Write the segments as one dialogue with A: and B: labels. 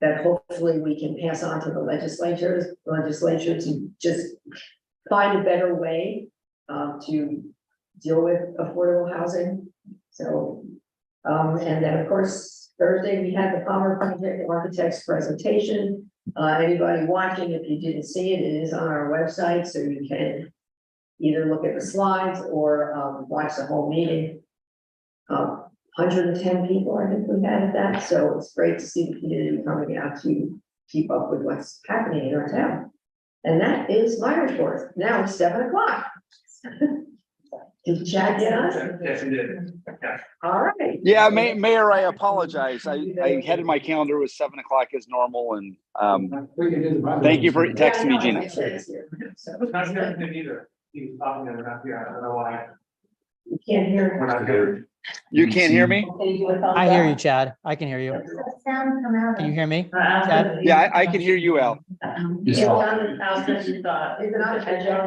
A: that hopefully we can pass on to the legislatures, legislature to just find a better way uh, to deal with affordable housing. So, um, and then of course, Thursday, we had the Palmer Project Architects presentation. Uh, anybody watching, if you didn't see it, it is on our website, so you can either look at the slides or, um, watch the whole meeting. Um, hundred and ten people, I think we had at that, so it's great to see the community coming out to keep up with what's happening in our town. And that is my report, now it's seven o'clock. Did Chad get on?
B: Yes, it is.
A: All right.
C: Yeah, Ma- Mayor, I apologize. I, I had in my calendar was seven o'clock as normal and, um, Thank you for
A: Yeah,
C: texting
A: I
C: me,
A: know,
C: Gina.
A: I said it's here, so
B: Not sure if they need her. He was talking to her, not here. I don't know why.
A: You can't hear.
B: We're not here.
C: you can't hear me?
D: I hear you, Chad. I can hear you.
E: Sound come out.
D: Can you hear me?
E: Chad?
C: Yeah, I, I can hear you, Al.
E: It's on the house that you thought.
A: Is it on the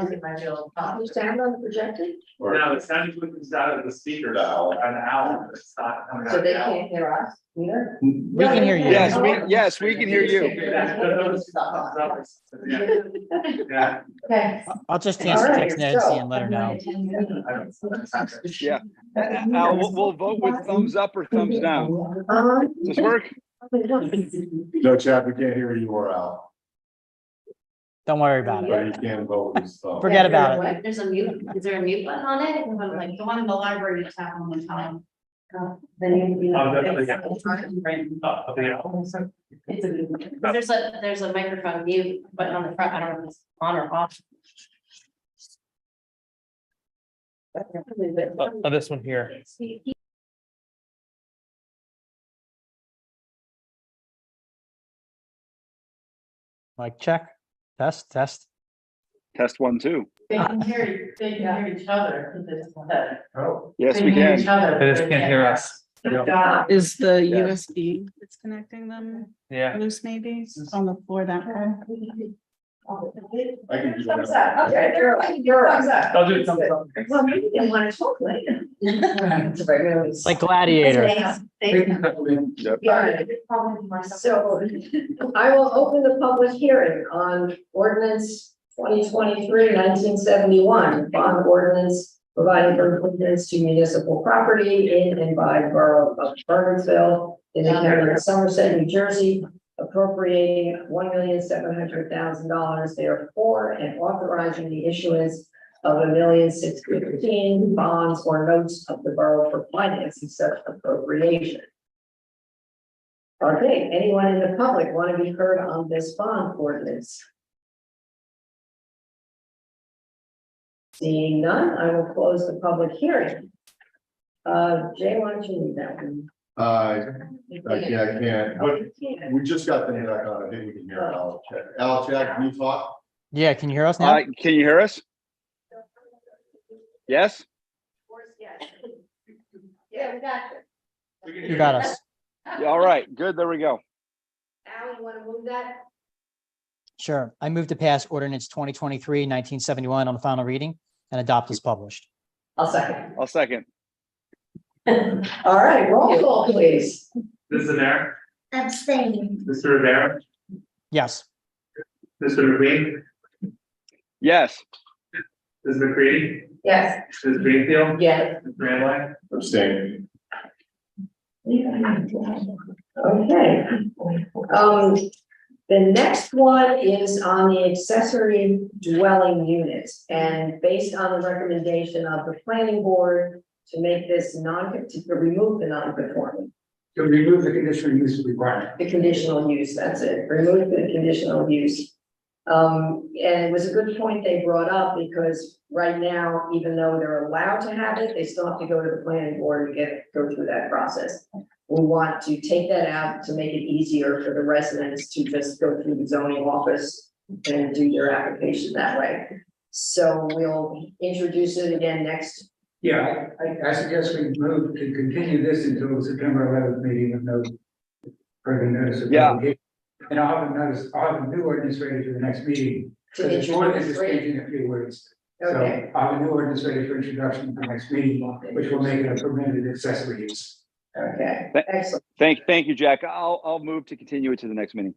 A: projector?
E: my real
A: Uh, you sound on the projector,
B: No, it sounded like it was out of the speakers, an hour, it's not coming out.
A: so they
B: now.
A: can't hear us either.
D: We can hear you.
C: Yes, we, yes, we can hear you.
B: Yeah, those- those- yeah, yeah.
E: Okay.
D: I'll just text
A: Alright,
D: text Nancy
A: so-
D: and let her know.
B: I don't- that's not good.
C: Yeah. Al, we'll, we'll vote with thumbs up or thumbs down.
A: Um,
C: Does this work?
F: No, Chad, we can't hear you or Al,
D: Don't worry about it.
F: but you can vote with some.
D: Forget about
A: it.
E: There's a mute, is there a mute button on it? If I'm like, go on to the library to tap on the time. Uh, Then you, you
B: Oh, definitely, yeah.
E: know.
B: Oh, okay, yeah. Oh, so-
E: It's a mute button. There's a, there's a microphone mute button on the front. I don't know if it's on or off.
G: On Oh, this one here.
D: Like check, test, test.
C: Test one, two.
E: They can hear, they can hear each other.
F: Oh,
C: Yes, we can. Uh,
G: They just can't hear us.
H: Is the
C: Yes.
H: USB that's connecting them
G: Yeah.
H: loose maybe It's on the floor that way?
F: I can do
A: Thumbs
F: that.
A: up, okay, you're, you're. Thumbs up.
G: I'll do it sometime.
A: Well, maybe they wanna talk later. It's very early.
D: Like gladiator.
C: Yep.
A: Yeah, so I will open the public hearing on ordinance 2023-1971, bond ordinance providing for improvements to municipal property in and by borough of Burnsville in the county of Somerset, New Jersey, appropriating one million seven hundred thousand dollars therefore and authorizing the issuance of a million six fifteen bonds or notes of the borough for financing such appropriation. Okay, anyone in the public want to be heard on this bond ordinance? Seeing none, I will close the public hearing. Uh, Jay, why don't you lead that one?
F: Uh, I can't, I can't,
A: Oh,
F: but
A: you can't.
F: we just got the hand back on, I think we can hear Al, Chad, Al, Chad, can you talk?
D: Yeah, can you hear us
C: Uh,
D: now?
C: can you hear us? Yes?
A: Yeah, we got
B: We can
D: You
B: hear
D: got us.
C: Yeah, All right, good, there we go.
A: Al, you want to move that?
D: Sure. I move to pass ordinance 2023-1971 on the final reading and adopt as published.
A: I'll second.
C: I'll second.
A: All right, roll call, please.
B: This is there,
E: Abstain.
B: Mr. Rivera,
D: Yes.
B: Mr. McQueen,
C: Yes.
B: Ms. McCready,
A: Yes.
B: Ms. Greenfield,
A: Yes.
B: Ms. Randline.
F: Abstain.
A: Okay. Um, the next one is on the accessory dwelling units, and based on the recommendation of the planning board to make this non, to remove the non-conforming,
I: to remove the conditional use requirement.
A: the conditional use, that's it, remove the conditional use. Um, and it was a good point they brought up, because right now, even though they're allowed to have it, they still have to go to the planning board and get, go through that process. We want to take that out to make it easier for the residents to just go through the zoning office and do their application that way. So we'll introduce it again next,
I: Yeah, I, I suggest we move to continue this until the September eleventh meeting with no further notice of
C: Yeah.
I: publication. And I'll have a notice, I'll have a new ordinance ready for the next meeting.
A: to
I: So the ordinance is
A: introduce.
I: changing a few words.
A: Okay,
I: So I'll have a new ordinance ready for introduction for the next meeting, which will make it a permitted accessory use.
A: okay, Excellent.
C: Thank, thank you, Jack. I'll, I'll move to continue it to the next meeting.